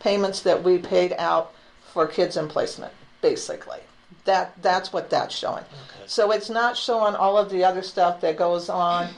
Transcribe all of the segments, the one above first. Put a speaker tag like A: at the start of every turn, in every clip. A: payments that we paid out for kids in placement, basically. That that's what that's showing. So it's not showing all of the other stuff that goes on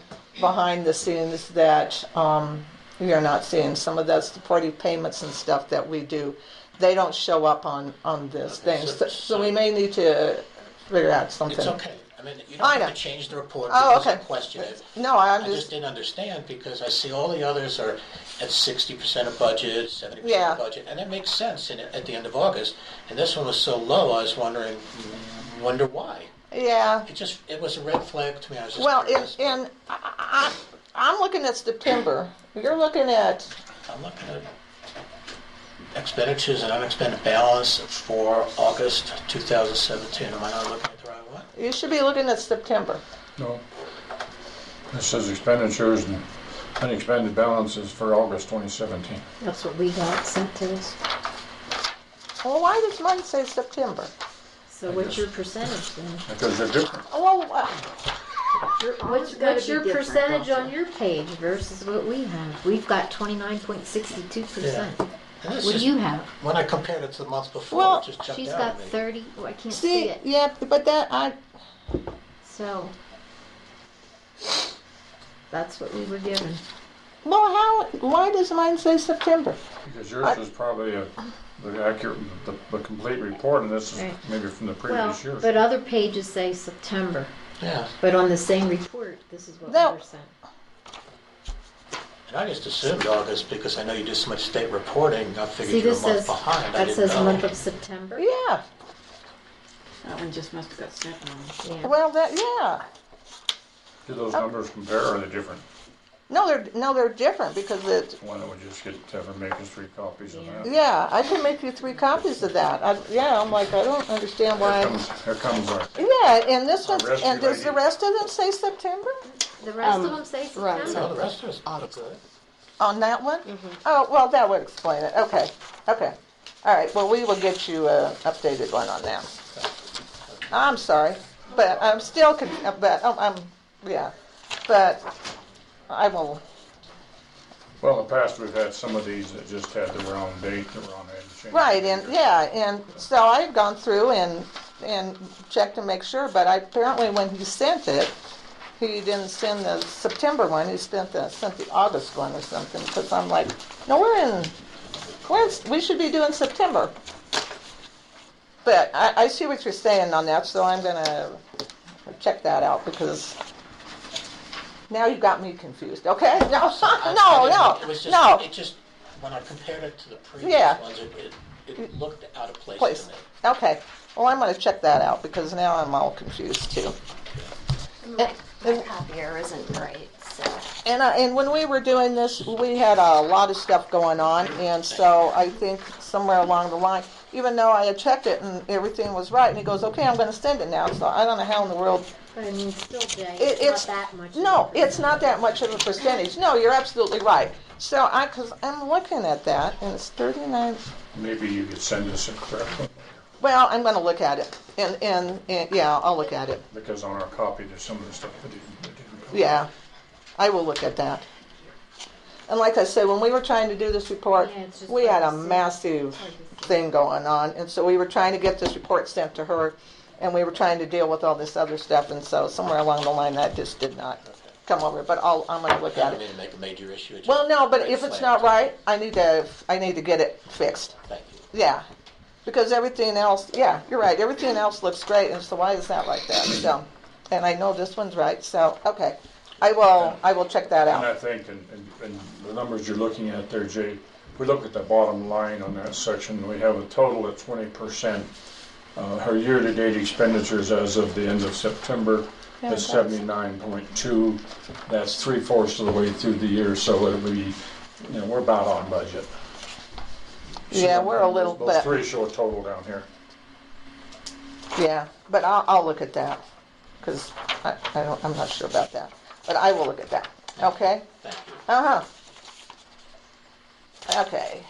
A: behind the scenes that um, you're not seeing. Some of those supportive payments and stuff that we do, they don't show up on on this
B: Okay,
A: thing.
B: so-
A: So, so we may need to figure out something.
B: It's okay. I mean, you
A: I
B: don't have
A: know.
B: to change the report
A: Oh,
B: because I
A: okay.
B: question it.
A: No, I
B: I just
A: understand.
B: didn't understand because I see all the others are at sixty percent of budget, seventy percent
A: Yeah.
B: of budget, and that makes sense in, at the end of August. And this one was so low, I was wondering, wonder why?
A: Yeah.
B: It just, it was a red flag to me. I was just
A: Well, in,
B: curious, but
A: in I, I, I'm looking at September. You're looking at
B: I'm looking at expenditures and unexpended balance for August two thousand seventeen. Am I not looking at the right one?
A: you should be looking at September.
C: No. This says expenditures and unexpended balances for August 2017.
D: That's what we got sent to us.
A: Well, why does mine say September?
D: So what's your percentage then?
C: Because they're different.
A: Oh, well, uh,
D: Your- What's,
E: gotta
D: what's
E: be
D: your
E: different,
D: percentage
E: don't
D: on your page versus what we have? We've got twenty-nine point sixty-two percent.
B: And this
D: What do
B: is-
D: you have?
B: When I compared it to the month before,
A: Well,
B: it just jumped
D: She's
B: out
D: got
B: at me.
D: thirty, oh, I can't see
A: see,
D: it.
A: yeah, but that I
D: So that's what we were given.
A: well, how? Why does mine say September?
C: Because yours is probably a, the accurate, the, the complete report, and this is
D: Right.
C: maybe from the
D: Well,
C: previous year.
D: but other pages say September,
B: Yeah,
D: but on the same report, this is what we
A: No.
D: were sent.
B: and I just assumed August because I know you do so much state reporting, I figured
D: See,
B: you were a
D: this
B: month
D: says,
B: behind. I
D: that
B: didn't
D: says
B: know.
D: month of September.
A: Yeah.
E: That one just must have got stepped on.
D: Yeah.
A: Well, that yeah.
C: Do those
A: oh.
C: numbers compare, or are they different?
A: No, they're no, they're different because it.
C: Why don't we just get, have her make us three copies of that?
A: Yeah, I can make you three copies of that. I, yeah, I'm like I don't understand
C: Here
A: why.
C: comes, here comes our,
A: Yeah, and this
C: The
A: one,
C: rest
A: and
C: you
A: does the
C: like-
A: rest of them say September
D: The rest of
E: Um,
D: them say
E: right.
B: Well,
D: September.
B: the rest of us look good.
A: on that one? Oh, well, that would explain it. Okay, okay, all right. Well, we will get you an updated one on that. I'm sorry, but I'm still, con- but oh, I'm, I'm, yeah, but I will.
C: well, in the past, we've had some of these that just had the wrong date, the wrong head change.
A: Right, and yeah, and so I've gone through and and checked to make sure, but I, apparently when he sent it, he didn't send the September one. He sent the sent the August one or something. Because I'm like, no, we're in, we're in, we should be doing September. But I, I see what you're saying on that, so I'm gonna check that out because. Now you got me confused, okay? No,
B: I- I
A: no,
B: didn't-
A: no,
B: It was just,
A: no.
B: it just, when I compared it to the
A: Yeah. Mm.
B: previous ones, it, it- it looked out of place
A: place.
B: to me.
A: Okay. Well, I'm going to check that out because now I'm all confused too.
F: The copier isn't great, so.
A: And I, and when we were doing this, we had a lot of stuff going on, and so I think somewhere along the line, even though I had checked it and everything was right, and he goes, "Okay, I'm going to send it now." So I don't know how in the world.
D: But I mean, still, Jay,
A: It,
D: it's
A: it's
D: not that much. of a
A: no,
D: percentage.
A: it's not that much of a percentage. No, you're absolutely right. So I, because I'm looking at that, and it's 39.
C: Maybe you could send us a correct one,
A: Well, I'm going to look at it, and, and and yeah, I'll look at it.
C: because on our copy, there's some of the stuff that didn't, that didn't. come.
A: Yeah, I will look at that. And like I said, when we were trying to do this report,
D: Yeah, it's just
A: we had a
D: hard to see.
A: massive thing going on, and so we were trying to get this report sent to her, and we were trying to deal with all this other stuff, and so somewhere along the line, that just did not come over, but I'll, I'm gonna look
B: I
A: at it.
B: didn't mean to make a major issue. it
A: Well,
B: just-
A: no, but
B: red
A: if it's
B: flag
A: not
B: to me.
A: right, I need to, I need to get it fixed,
B: Thank you.
A: yeah. Because everything else, yeah, you're right, everything else looks great, and so why is that like that, so, and I know this one's right, so, okay. I will, I will check that out.
C: And I think, and, and- and the numbers you're looking at there, Jay, we look at the bottom line on that section, we have a total of twenty percent. Uh, her year-to-date expenditures as of the end of September is seventy-nine point two. That's three-fourths of the way through the year, so it'll be, you know, we're about on budget.
A: Yeah, we're a little
C: Those
A: bit,
C: three show a total down here.
A: yeah, but I'll, I'll look at that, because I, I don't, I'm not sure about that, but I will look at that, okay?
B: Thank you.
A: Uh-huh. Okay,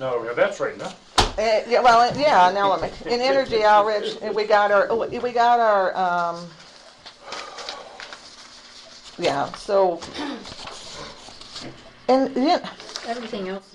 C: No, yeah, that's right, no?
A: Uh, yeah, well, yeah, an element, in energy outreach, we got our, oh, we got our, um, yeah, so, and, yeah,
D: Everything else